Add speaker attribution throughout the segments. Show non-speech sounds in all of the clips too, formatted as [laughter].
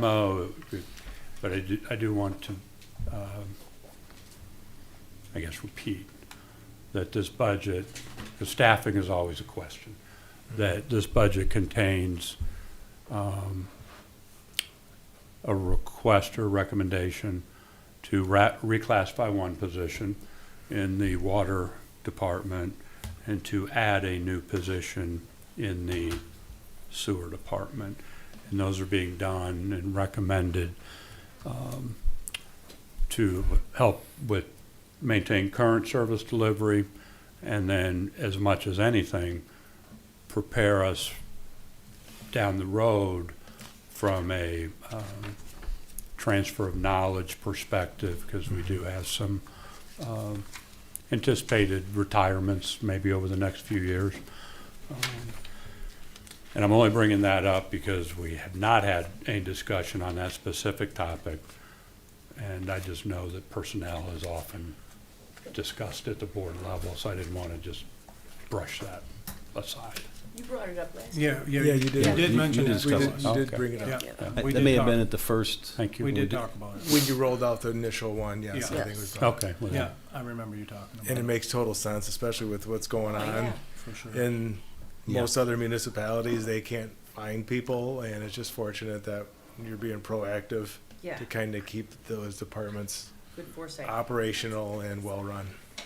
Speaker 1: memo, but I do, I do want to, um, I guess, repeat that this budget, the staffing is always a question, that this budget contains um, a request or recommendation to ra- reclassify one position in the water department and to add a new position in the sewer department. And those are being done and recommended um, to help with, maintain current service delivery, and then, as much as anything, prepare us down the road from a um, transfer of knowledge perspective, because we do have some um, anticipated retirements maybe over the next few years. Um, and I'm only bringing that up because we have not had any discussion on that specific topic. And I just know that personnel is often discussed at the board level, so I didn't want to just brush that aside.
Speaker 2: You brought it up last.
Speaker 3: Yeah, yeah.
Speaker 4: Yeah, you did.
Speaker 3: You
Speaker 4: You-
Speaker 3: did
Speaker 4: you
Speaker 3: mention
Speaker 4: did
Speaker 3: it. We did,
Speaker 4: discuss it.
Speaker 3: you did
Speaker 1: Okay.
Speaker 3: bring it up.
Speaker 2: Yeah.
Speaker 4: Yeah.
Speaker 3: We
Speaker 5: That
Speaker 3: did
Speaker 5: may have
Speaker 3: talk-
Speaker 5: been at the first,
Speaker 1: Thank you.
Speaker 3: We did
Speaker 1: Would-
Speaker 3: talk about it.
Speaker 4: When you rolled out the initial one, yes, I
Speaker 3: Yeah.
Speaker 4: think it was.
Speaker 1: Okay. well,
Speaker 3: Yeah, I remember you talking about it.
Speaker 4: And it makes total sense, especially with what's going on
Speaker 3: For sure.
Speaker 4: in
Speaker 5: Yeah.
Speaker 4: most other municipalities. They can't find people, and it's just fortunate that you're being proactive
Speaker 2: Yeah,
Speaker 4: to kind of keep those departments
Speaker 2: good foresight.
Speaker 4: operational and well-run.
Speaker 1: Ah,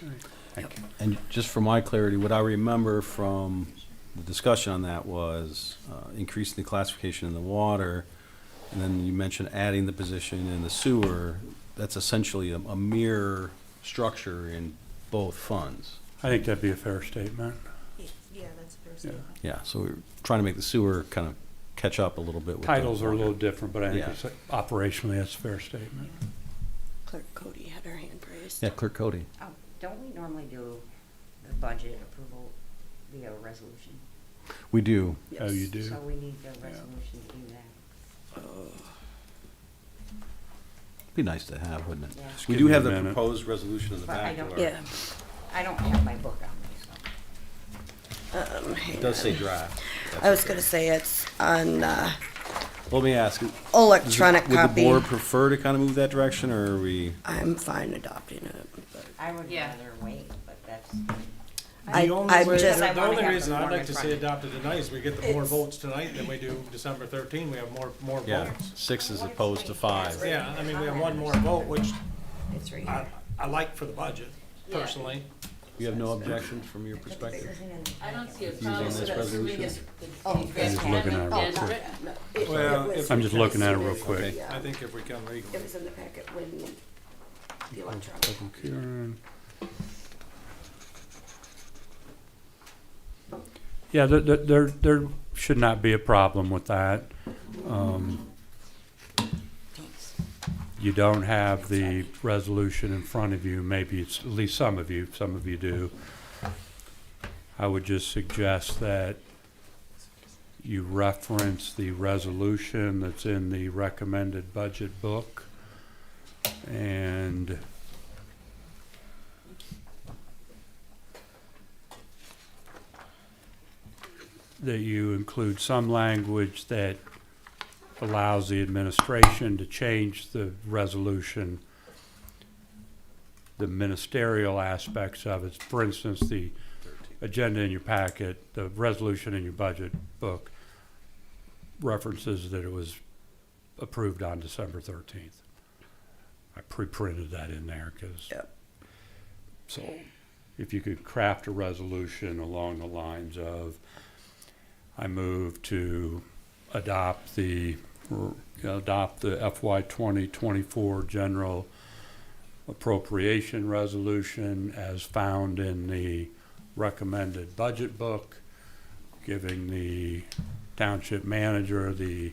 Speaker 1: Thank you.
Speaker 5: and just for my clarity, what I remember from the discussion on that was uh, increasing the classification in the water, and then you mentioned adding the position in the sewer. That's essentially a, a mirror structure in both funds.
Speaker 1: I think that'd be a fair statement.
Speaker 2: Yeah, that's fair
Speaker 1: statement.
Speaker 5: Yeah, so we're trying to make the sewer kind of catch up a little bit with the
Speaker 1: Titles are a
Speaker 5: water.
Speaker 1: little different, but I think
Speaker 5: Yeah.
Speaker 1: it's operationally, that's a fair statement.
Speaker 2: Clerk Cody had her hand raised.
Speaker 5: Yeah, Clerk Cody.
Speaker 6: Oh, don't we normally do the budget approval via a resolution?
Speaker 5: We do.
Speaker 1: Oh, you do?
Speaker 6: So we need the resolution to do that.
Speaker 5: Be nice to have, wouldn't it?
Speaker 6: Yeah. Just
Speaker 5: We
Speaker 1: give
Speaker 5: do
Speaker 1: me a
Speaker 5: have the
Speaker 1: minute.
Speaker 5: proposed resolution in the
Speaker 6: But I
Speaker 5: back.
Speaker 6: don't-
Speaker 5: Laura.
Speaker 2: Yeah.
Speaker 6: I don't have my book on me, so.
Speaker 2: um, hang
Speaker 5: It does say
Speaker 2: on.
Speaker 5: draft. That's
Speaker 2: I was
Speaker 5: okay.
Speaker 2: gonna say it's on, uh,
Speaker 5: Let me ask.
Speaker 2: electronic
Speaker 5: Would the
Speaker 2: copy.
Speaker 5: board prefer to kind of move that direction, or are we?
Speaker 2: I'm fine adopting it, but
Speaker 6: I would
Speaker 7: Yeah.
Speaker 6: rather wait, but that's,
Speaker 2: I, I'm just,
Speaker 6: I
Speaker 3: The
Speaker 6: wanna
Speaker 3: only
Speaker 6: have
Speaker 3: reason
Speaker 6: the
Speaker 3: I'd
Speaker 6: form
Speaker 3: like
Speaker 6: in
Speaker 3: to
Speaker 6: front
Speaker 3: see
Speaker 6: of me.
Speaker 3: adopted tonight is we get the more
Speaker 2: It's-
Speaker 3: votes tonight than we do December thirteen, we have more, more
Speaker 5: Yeah,
Speaker 3: votes.
Speaker 5: six as opposed to five.
Speaker 3: Yeah, I mean, we have one more vote, which
Speaker 6: it's right
Speaker 3: I,
Speaker 6: here.
Speaker 3: I like for the budget,
Speaker 7: Yeah.
Speaker 3: personally.
Speaker 5: You have no objections from your
Speaker 6: This
Speaker 5: perspective?
Speaker 6: isn't in the
Speaker 7: I don't
Speaker 6: packet.
Speaker 7: see a
Speaker 5: on
Speaker 7: problem
Speaker 5: this
Speaker 7: with us doing it.
Speaker 5: resolution?
Speaker 1: I'm just looking at it real
Speaker 7: As
Speaker 1: quick.
Speaker 7: written.
Speaker 4: Well,
Speaker 2: it was-
Speaker 1: I'm just looking at it real
Speaker 5: Okay.
Speaker 1: quick.
Speaker 3: I think if we can legally.
Speaker 2: it was in the packet when the electronic.
Speaker 1: Public hearing. Yeah, there, there- there, there should not be a problem with that. Um, You don't have the resolution in front of you, maybe it's, at least some of you, some of you do. I would just suggest that you reference the resolution that's in the recommended budget book. And that you include some language that allows the administration to change the resolution, the ministerial aspects of it. For instance, the agenda in your packet, the resolution in your budget book references that it was approved on December thirteenth. I pre-printed that in there because.
Speaker 2: Yep.
Speaker 1: So if you could craft a resolution along the lines of, I move to adopt the, adopt the FY twenty twenty-four general appropriation resolution as found in the recommended budget book, giving the township manager the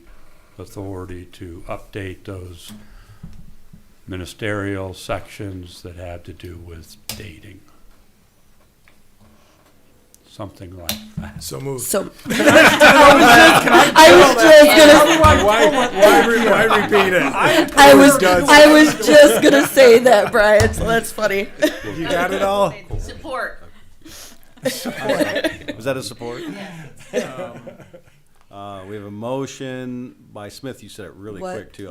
Speaker 1: authority to update those ministerial sections that have to do with dating. Something like that.
Speaker 4: So moved.
Speaker 2: So. [laughs] I was just gonna
Speaker 4: Why re- why repeat it?
Speaker 2: I was
Speaker 4: Does-
Speaker 2: I was just gonna say that, Brian. So that's funny.
Speaker 4: You got it all?
Speaker 7: Support.
Speaker 5: Was that a support? Um, Uh, we have a motion by Smith, you said it really
Speaker 2: What-
Speaker 5: quick too,